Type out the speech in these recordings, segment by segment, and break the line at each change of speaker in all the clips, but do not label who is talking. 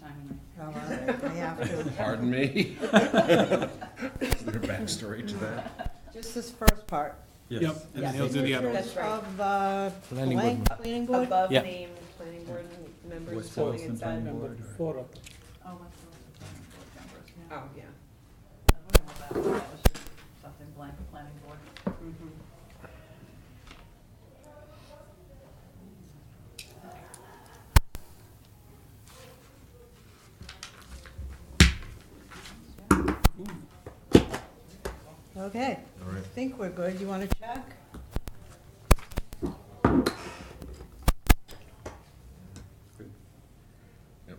time
All right, I have to.
Pardon me? Is there a backstory to that?
Just this first part.
Yep, and then he'll do the other one.
That's right.
Of the
Planning board
blank planning board?
Above
Yeah.
named planning board members
What's
holding
Boylston
its
Planning
own.
Board or-
Four of them.
Oh, what's the list of planning board members?
Oh, yeah.
I don't know about that, that was just something blank, planning board.
Mhm.
Okay,
All right.
I think we're good. You want to check?
Yep.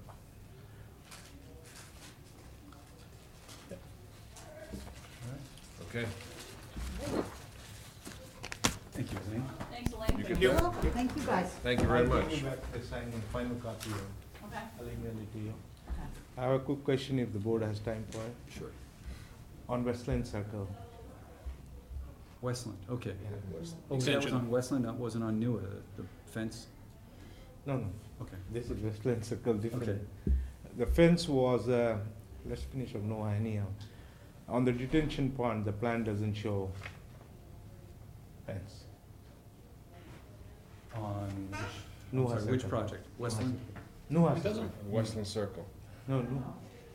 Okay.
Thank you, Elaine.
Thanks, Elaine.
You
for
can
your-
Well, Thank you, guys.
Thank you very much.
back the sign and final copy, I'll
Okay.
email it to you.
Okay.
I have a quick question if the board has time for it.
Sure.
On Westland Circle,
Westland, okay. Oh, that was
Extension.
on Westland, that wasn't on Newa, the fence,
no, no,
okay.
this is Westland Circle,
Okay.
different. The fence was, uh, let's finish on Noah anyhow. uh, On the detention pond, the plan doesn't show fence.
On which, I'm
Noah
sorry, which
Circle.
project? Westland?
Noah
It
Circle,
doesn't?
Westland Circle.
no, no,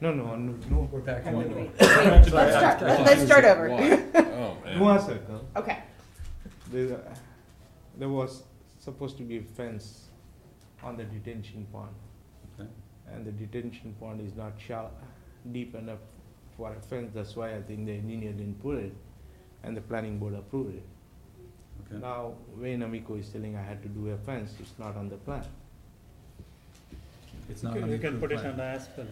no, no, on Noah.
We're back to
Wait,
one.
wait, let's
Sorry, I-
start,
I
let's
thought
let's
you
start
said
over.
Oh, man.
Noah Circle,
Okay,
there, uh, there was supposed to be a fence on the detention pond.
Okay.
and the detention pond is not shallow, deep enough for a fence, that's why I think the engineer didn't put it, and the planning board approved it.
Okay.
Now, Wayne Amico is telling I had to do a fence, it's not on the plan.
It's not on the
You
approved plan.
can
Put it on the asphalt.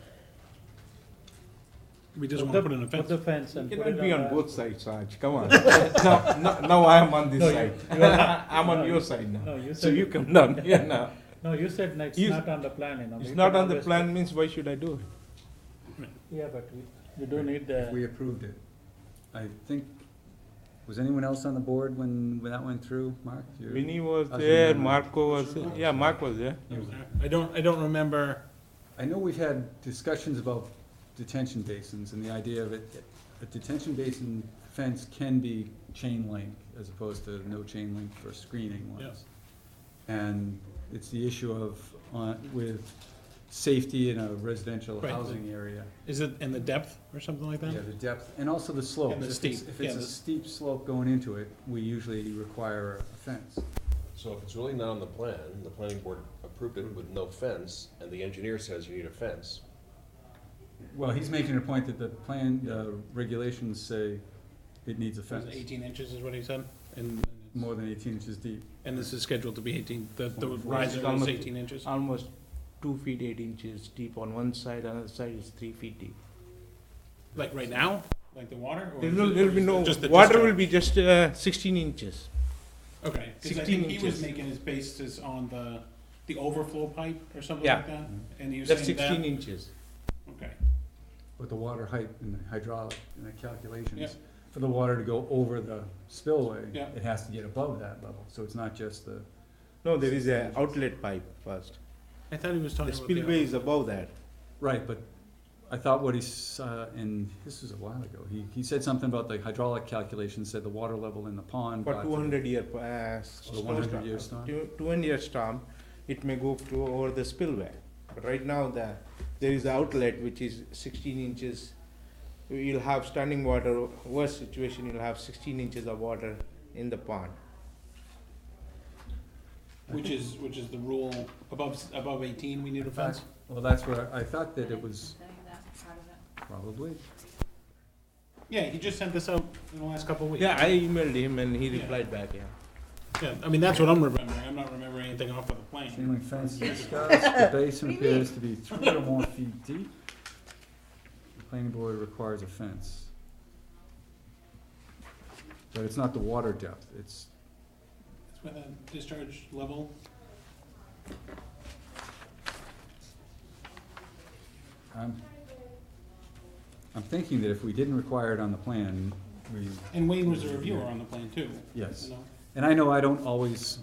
We just
Put
want to
the-
put in a
Put
fence.
the fence
It
and put it on
cannot be on
the-
both sides, Raj, come on. Now, now- now I am on
No,
this
you-
side,
you are not.
I'm
No,
on your
you-
side
No,
now,
you
so
said,
you come down here now.
no, you said no, it's
You-
not on the plan, you know.
It's
we
not
can
on the
always-
plan means why should I do it?
Yeah, but we, we do need
If we
the,
approved it. I think, was anyone else on the board when, when that went through, Mark? You're-
Vinny was
I was
there,
remembering.
Marco was, there. yeah, Mark was there.
you-
I don't, I don't remember,
I know we've had discussions about detention basins and the idea of it, a detention basin fence can be chain link as opposed to no chain link for screening ones.
Yes.
And it's the issue of, on, with safety in a residential
Right.
housing area.
is it in the depth or something like
Yeah,
that?
the depth, and also the slope.
And the
If it's-
steep,
If it's
yeah,
a
the-
steep slope going into it, we usually require a fence.
So if it's really not on the plan, the planning board approved it with no fence, and the engineer says you need a fence,
Well, he's making a point that the plan, the regulations say it needs a
It was
fence,
Eighteen inches is what he said, and,
more than eighteen inches deep.
and this is scheduled to be eighteen, the, the riser is
Almost-
eighteen inches?
almost two feet eight inches deep on one side, another side is three feet deep.
Like right now, like the water? or
There
is
will,
it-
there
or
will be
is it
no,
just the
water
discharge?
will be just uh, sixteen inches.
Okay, 'cause I
16
think he was
inches.
making his basis on the, the overflow pipe or something
Yeah.
like that, and he was
That's
saying that,
sixteen inches.
okay,
with the water height and the hydraulic and the
Yeah.
calculations, for the water to go over the spillway,
Yeah.
it has to get above that level, so it's not just the,
No, there is a outlet pipe first.
I thought he was talking
The
about
spillway is above that.
right, but I thought what he, s- uh, and this was a while ago, he, he said something about the hydraulic calculations, said the water level in the pond.
For
got to-
two hundred year, uh,
the
storm.
100 year storm?
Two hundred year storm, it may go to over the spillway. But right now, the, there is outlet which is sixteen inches. You'll have standing water, worst situation, you'll have sixteen inches of water in the pond.
Which is, which is the rule, above, s- above eighteen, we need a fence?
Well, that's where, I thought that it was
Saying that's part of it.
probably,
Yeah, he just sent this out in the last couple of weeks.
Yeah, I emailed him and he
Yeah.
replied back, yeah.
Yeah, I mean, that's what I'm remembering, I'm not remembering anything off of the
chain
plane.
link fence discussed, the basin appears to be three or more feet deep. The planning board requires a fence. But it's not the water depth, it's
That's where the discharge level,
I'm, I'm thinking that if we didn't require it on the plan, we,
and Wayne was a reviewer on the plane too.
Yes.
you know?
and I know I don't always